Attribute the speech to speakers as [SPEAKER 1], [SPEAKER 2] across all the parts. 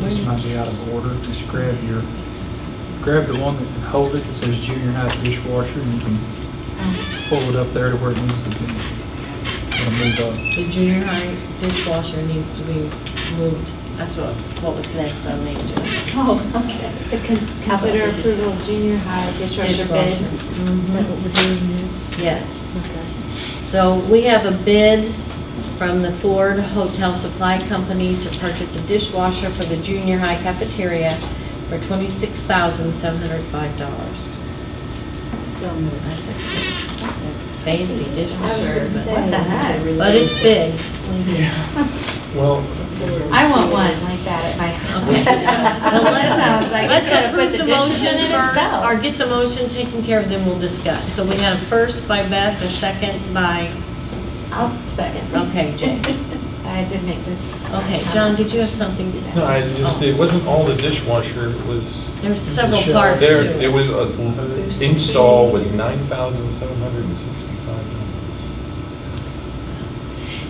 [SPEAKER 1] This might be out of order. Just grab your, grab the one that hold it that says junior high dishwasher and you can pull it up there to where it needs to be. It'll move up.
[SPEAKER 2] The junior high dishwasher needs to be moved. That's what, what was next on the agenda.
[SPEAKER 3] Oh, okay. The con- Consider approval of junior high dishwasher bid. Mm-hmm. Is
[SPEAKER 2] Dishwasher.
[SPEAKER 3] that what
[SPEAKER 2] Mhm.
[SPEAKER 3] we're doing now?
[SPEAKER 2] Yes.
[SPEAKER 3] Okay.
[SPEAKER 2] So we have a bid from the Ford Hotel Supply Company to purchase a dishwasher for the junior high cafeteria for twenty-six thousand seven hundred five dollars.
[SPEAKER 3] So moved.
[SPEAKER 2] That's a fancy
[SPEAKER 3] I
[SPEAKER 2] dishwasher,
[SPEAKER 3] was
[SPEAKER 2] but,
[SPEAKER 3] gonna What the heck?
[SPEAKER 2] but it's big.
[SPEAKER 1] Well,
[SPEAKER 3] I want one like that at my
[SPEAKER 2] Okay.
[SPEAKER 3] house.
[SPEAKER 2] Well, let's-
[SPEAKER 3] Sounds like
[SPEAKER 2] Let's
[SPEAKER 3] it's gonna put
[SPEAKER 2] approve the
[SPEAKER 3] dishes
[SPEAKER 2] motion
[SPEAKER 3] in
[SPEAKER 2] first,
[SPEAKER 3] itself.
[SPEAKER 2] or get the motion taken care of, then we'll discuss. So we had a first by Beth, a second by,
[SPEAKER 3] I'll second.
[SPEAKER 2] okay, Jay.
[SPEAKER 3] I did make this.
[SPEAKER 2] Okay, John, did you have something to
[SPEAKER 4] No,
[SPEAKER 2] say?
[SPEAKER 4] I just, it wasn't all the dishwasher, it was,
[SPEAKER 2] There's several
[SPEAKER 1] Michelle.
[SPEAKER 2] parts
[SPEAKER 4] there,
[SPEAKER 2] to
[SPEAKER 4] it
[SPEAKER 2] it.
[SPEAKER 4] was, a- install was nine thousand seven hundred and sixty-five dollars.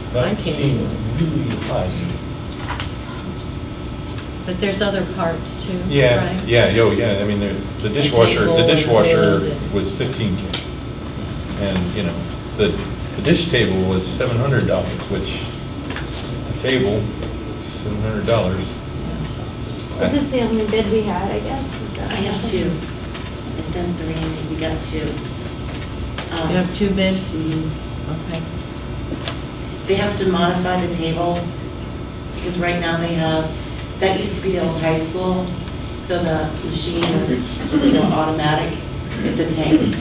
[SPEAKER 2] I
[SPEAKER 4] That
[SPEAKER 2] can't do
[SPEAKER 4] seemed really high.
[SPEAKER 2] But there's other parts too,
[SPEAKER 4] Yeah,
[SPEAKER 2] right?
[SPEAKER 4] yeah, yo, yeah, I mean, there- the dishwasher,
[SPEAKER 2] table
[SPEAKER 4] the
[SPEAKER 2] and the
[SPEAKER 4] dishwasher
[SPEAKER 2] bed.
[SPEAKER 4] was fifteen K. And, you know, the, the dish table was seven hundred dollars, which, the table, seven hundred dollars.
[SPEAKER 3] Is this the only bid we had, I guess? Is that-
[SPEAKER 5] I have two. I sent three and we got two. Um,
[SPEAKER 2] You have two bids?
[SPEAKER 5] mm,
[SPEAKER 2] Okay.
[SPEAKER 5] They have to modify the table because right now they have, that used to be the old high school. So the machine is, you know, automatic. It's a tank.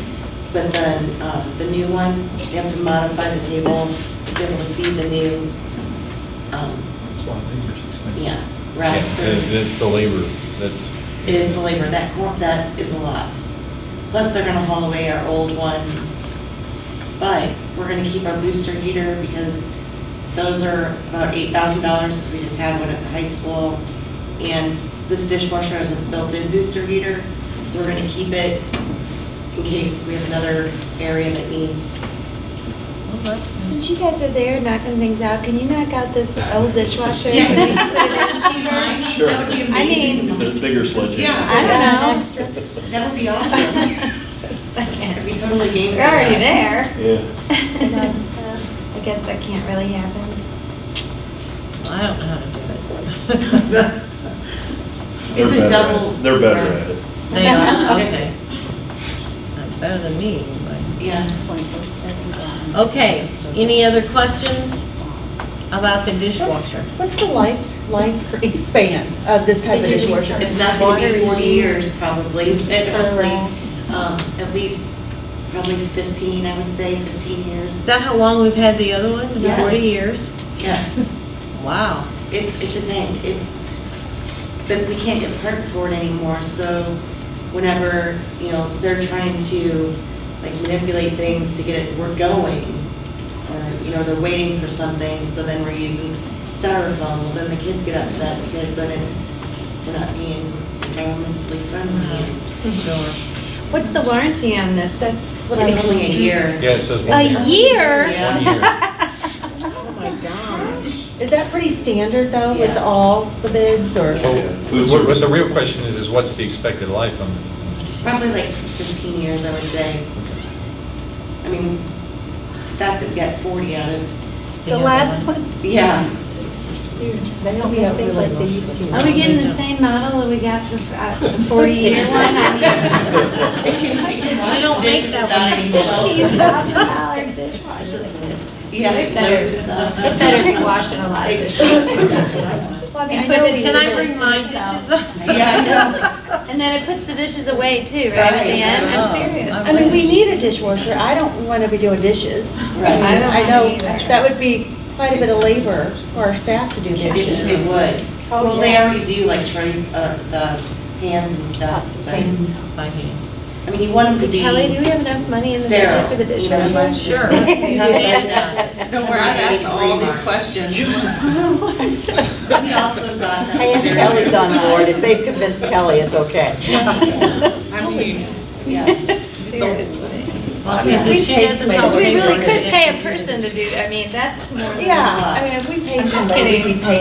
[SPEAKER 5] But then uh, the new one, they have to modify the table to be able to feed the new, um,
[SPEAKER 1] That's why labor's expensive.
[SPEAKER 4] Yeah,
[SPEAKER 5] yeah, rice.
[SPEAKER 4] that- That's the labor, that's.
[SPEAKER 5] It is the labor, that, cor- that is a lot. Plus, they're gonna haul away our old one. But we're gonna keep our booster heater because those are about eight thousand dollars, we just had one at the high school. And this dishwasher has a built-in booster heater, so we're gonna keep it in case we have another area that needs.
[SPEAKER 2] Well, that's good.
[SPEAKER 3] Since you guys are there knocking things out, can you knock out this old dishwasher? so we can put it in cheaper?
[SPEAKER 6] Sure.
[SPEAKER 5] That would be
[SPEAKER 3] I
[SPEAKER 5] amazing.
[SPEAKER 6] The bigger sledgehammer.
[SPEAKER 5] Yeah.
[SPEAKER 3] I don't know.
[SPEAKER 5] That would be awesome. It'd be totally game.
[SPEAKER 3] They're already there.
[SPEAKER 6] Yeah.
[SPEAKER 3] I guess that can't really happen.
[SPEAKER 2] I don't know how to do it.
[SPEAKER 6] They're
[SPEAKER 5] It's
[SPEAKER 6] better at
[SPEAKER 5] a
[SPEAKER 6] it.
[SPEAKER 5] double.
[SPEAKER 6] They're better at it.
[SPEAKER 2] They are, okay. Not Better than me, but.
[SPEAKER 5] Yeah.
[SPEAKER 2] Okay, any other questions about the dishwasher?
[SPEAKER 7] What's the life, life span of this type of dishwasher?
[SPEAKER 5] It's not going to be 40 years, probably, but probably, um, at least, probably 15, I would say, 15
[SPEAKER 2] Is
[SPEAKER 5] years.
[SPEAKER 2] that how long we've had the other one? Is it 40
[SPEAKER 5] Yes.
[SPEAKER 2] years?
[SPEAKER 5] Yes,
[SPEAKER 2] Wow.
[SPEAKER 5] it's, it's a tank, it's, but we can't get perks for it anymore, so whenever, you know, they're trying to, like, manipulate things to get it, we're going, or, you know, they're waiting for something, so then we're using styrofoam, well, then the kids get upset because then it's, we're not being environmentally friendly.
[SPEAKER 2] Sure.
[SPEAKER 3] What's the warranty on this?
[SPEAKER 7] That's what I
[SPEAKER 5] It's
[SPEAKER 7] was.
[SPEAKER 5] only a year.
[SPEAKER 4] Yeah, it says one
[SPEAKER 3] A
[SPEAKER 4] year.
[SPEAKER 3] year?
[SPEAKER 5] Yeah.
[SPEAKER 4] One year.
[SPEAKER 7] Oh my gosh. Is that pretty standard though with
[SPEAKER 5] Yeah.
[SPEAKER 7] all the bids or?
[SPEAKER 4] Well,
[SPEAKER 6] Food
[SPEAKER 4] What what
[SPEAKER 6] service.
[SPEAKER 4] the real question is, is what's the expected life on this? thing?
[SPEAKER 5] Probably like 15 years, I would say. I mean, that would get 40 out of,
[SPEAKER 7] The last one,
[SPEAKER 5] yeah.
[SPEAKER 7] they don't have things like they used to.
[SPEAKER 3] Are we getting the same model that we got for uh, the 40-year one?
[SPEAKER 5] I
[SPEAKER 2] don't make that
[SPEAKER 3] I mean, $15,000 dishwasher.
[SPEAKER 5] Yeah,
[SPEAKER 3] It
[SPEAKER 5] it
[SPEAKER 3] better-
[SPEAKER 5] loads itself.
[SPEAKER 3] It better be washing a lot of dishes.
[SPEAKER 7] Well, I mean, I
[SPEAKER 3] But
[SPEAKER 7] know
[SPEAKER 3] it
[SPEAKER 7] we-
[SPEAKER 2] Can I bring my dishes up?
[SPEAKER 5] Yeah,
[SPEAKER 3] And then it puts the dishes away too, right at the end?
[SPEAKER 2] Oh,
[SPEAKER 3] I'm serious.
[SPEAKER 7] I mean, we need a dishwasher. I don't want to be doing dishes.
[SPEAKER 5] Right.
[SPEAKER 7] I mean,
[SPEAKER 3] I don't
[SPEAKER 7] I know
[SPEAKER 3] either.
[SPEAKER 7] that would be quite a bit of labor for our staff to do
[SPEAKER 5] I know. It
[SPEAKER 7] dishes.
[SPEAKER 5] it would.
[SPEAKER 7] Oh,
[SPEAKER 5] Well, they
[SPEAKER 7] yeah.
[SPEAKER 5] already do like trays, uh, the pans and
[SPEAKER 7] Lots
[SPEAKER 5] stuff.
[SPEAKER 7] of
[SPEAKER 5] but-
[SPEAKER 7] things.
[SPEAKER 2] By hand.
[SPEAKER 5] I mean, you want them to be.
[SPEAKER 3] Kelly, do we have enough money in the budget
[SPEAKER 5] Sterile.
[SPEAKER 3] for the
[SPEAKER 5] Yeah.
[SPEAKER 3] dishwasher?
[SPEAKER 2] Sure.
[SPEAKER 5] Yeah.
[SPEAKER 8] Don't worry, I've asked all these questions.
[SPEAKER 5] We also got them.
[SPEAKER 7] I am Kelly's on board. If they've convinced Kelly, it's okay.
[SPEAKER 8] I mean,
[SPEAKER 5] Yeah.
[SPEAKER 2] Well, because
[SPEAKER 7] We
[SPEAKER 2] if she
[SPEAKER 7] paid
[SPEAKER 2] doesn't
[SPEAKER 7] somebody
[SPEAKER 2] help.
[SPEAKER 3] Because we
[SPEAKER 2] pay for
[SPEAKER 3] really
[SPEAKER 2] it,
[SPEAKER 3] could
[SPEAKER 2] it's
[SPEAKER 3] pay a
[SPEAKER 2] computer.
[SPEAKER 3] person to do, I mean, that's more. than-
[SPEAKER 7] Yeah, I mean, if we paid
[SPEAKER 3] I'm just
[SPEAKER 7] somebody,
[SPEAKER 3] kidding.
[SPEAKER 7] we paid